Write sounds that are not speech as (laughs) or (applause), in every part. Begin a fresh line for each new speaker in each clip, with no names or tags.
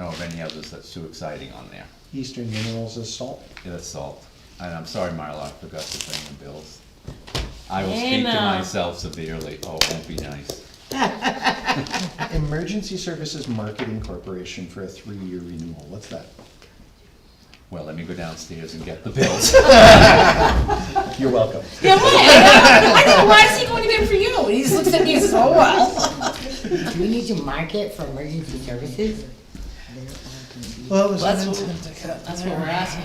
of any others that's too exciting on there.
Eastern Minerals is salt.
Yeah, That's salt. And I'm sorry, Marla, I forgot to bring the bills. I will speak to
Emma.
myself severely. Oh, it won't be nice.
Emergency Services Marketing Corporation for a three-year renewal, what's that?
Well, let me go downstairs and get the bills.
You're welcome.
Yeah, right. I think, why is he going to them for you? And he just looks at me and says, oh, well.
Do (laughs) we need to mark it for emergency services?
Well, it was
That's what, that's what we're asking.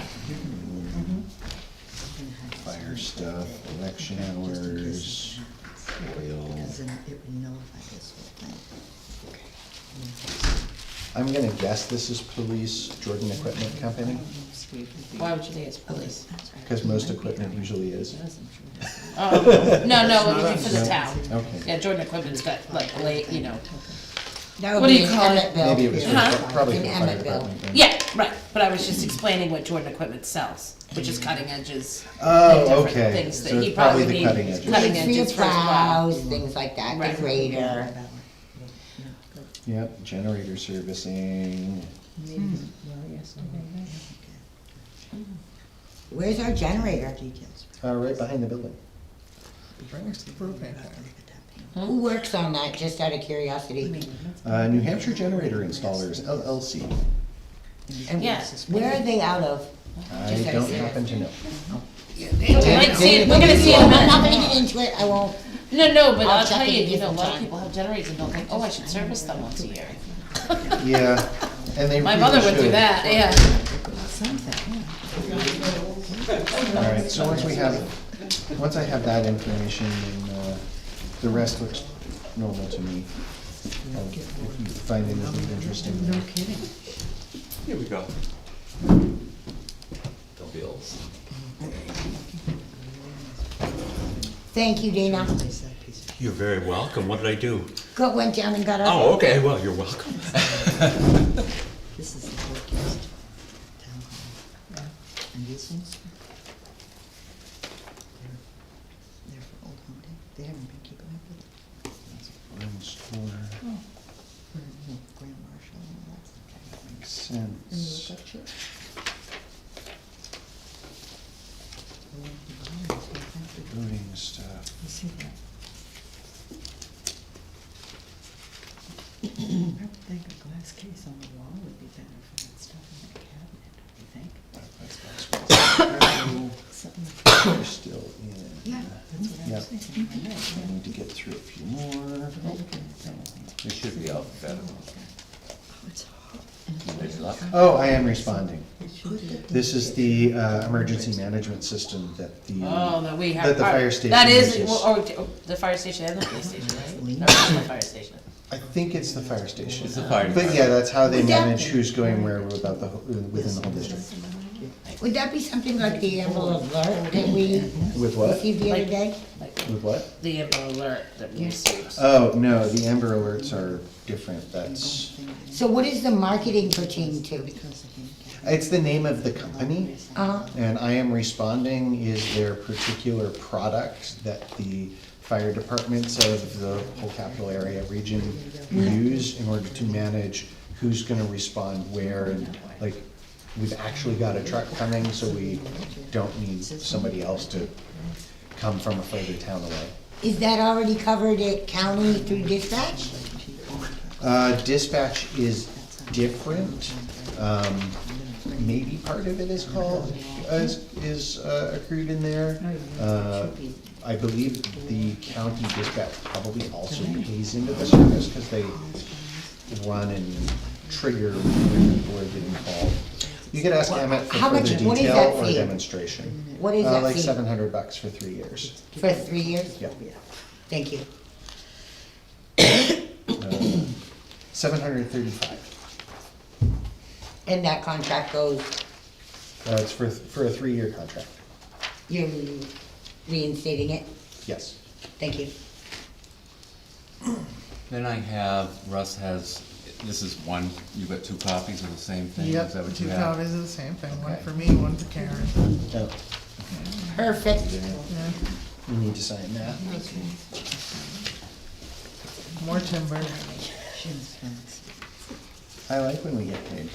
Fire stuff, election hours, oil. I'm gonna guess this is police, Jordan Equipment Company,
Why would you think
(laughs)
it's police?
because most equipment usually is.
Oh, no, no, it would be for the
us.
town.
Okay.
Yeah, Jordan Equipment's got like, late, you know.
That would
What do
be
you
in
call it?
Emmett Bill.
Maybe it was for-
Uh-huh.
Yeah.
probably
In
for the fire
Emmett Bill.
department. then.
Yeah, right, but I was just explaining what Jordan Equipment sells, which is cutting edges. and
Oh,
different
okay.
Things
So
that he
it's probably
probably
the
needs.
cutting edges.
Cutting
It's for your
edges for his plow.
plows, things like that,
Right.
the grader.
Yep, generator servicing.
Where's our generator?
Hmm?
Uh, right behind the building.
Who works on that, just out of curiosity?
Uh, New Hampshire Generator Installers LLC.
And
Yeah.
Where are they out of?
I
Just out of
don't
curiosity.
happen to know.
We might see it- We're gonna see it in a
I'm not
minute.
gonna get into it, I won't.
No, no, but
I'll
I'll
check
tell
it
you,
a
you know, a
different
lot of
time.
people have generators and don't think, oh, I should service them once a year.
Yeah, and they
(laughs) My
really
mother would do
should.
that, yeah.
All right, so once we have, once I have that information, and uh, the rest looks normal to me. I'll- If you find anything interesting, then-
(laughs) Here we go. The bills.
Thank you, Dana.
You're very welcome. What did I do?
Go, went down and got our.
Uh-huh.
Oh, okay. Well, you're welcome.
This is the forecast, town hall. And these ones? They're, they're for Old Home Day. They haven't been keeping up with it.
Orange store,
Or, you know, Grand Marshal and all that stuff.
makes
And you look
sense.
up here. The one behind is what I think they-
Voting stuff, (coughs)
You see that? I would think a glass case on the wall would be better for that stuff in the cabinet, do you think? Something like that.
we're still in,
Yeah, that's what I was
Yep.
thinking. I
I
know,
need to get through a few more.
but I look at it that way.
It should be alphabetical.
Oh, it's hot.
Good luck.
Oh, I am responding.
It should be.
This is the uh, emergency management system that the.
Oh, no, we have.
That the
our-
fire station
That is,
uses.
well, or, or the fire station and the police station, right? No, it's the fire station.
I think it's the fire station.
It's the fire
But yeah,
department.
that's how they
Would that-
manage who's going where without the, whole- within the whole district.
Would that be something like the envelope alert that we
With what?
received the other
Like-
day?
Like
With what?
the Amber Alert that we received.
Oh, no, the Amber Alerts are different, that's,
So what is the marketing pertain to?
Because I think
it's the name of the company,
Uh,
and I am responding is their particular product that the fire departments of the whole capital area region use in order to manage who's gonna respond where, and like, we've actually got a truck coming, so we don't need somebody else to come from a further town away.
is that already covered at county through dispatch?
Uh, dispatch is different. Um, maybe part of it is called, is, is uh, accrued in there.
Oh,
Uh, I believe the county dispatch probably also pays into the service because they run and trigger when people are getting called. You could ask Emmett for
How
further
much- what is that
detail or
fee?
demonstration.
What is
Uh,
that
Like
fee?
seven hundred bucks for three years.
For three years?
Yeah.
Thank you.
Seven hundred thirty-five.
And that contract goes,
Uh, it's for, for a three-year contract.
you're reinstating it?
Yes.
Thank you.
Then I have, Russ has, this is one, you've got two copies of the same thing? Is that
Yep,
what you
two
have?
copies of the same thing, one
Okay.
for me, one for Karen.
Oh.
Perfect.
Yeah,
You need to sign that.
More timber.
Jim's fancy.
I like when we get paid.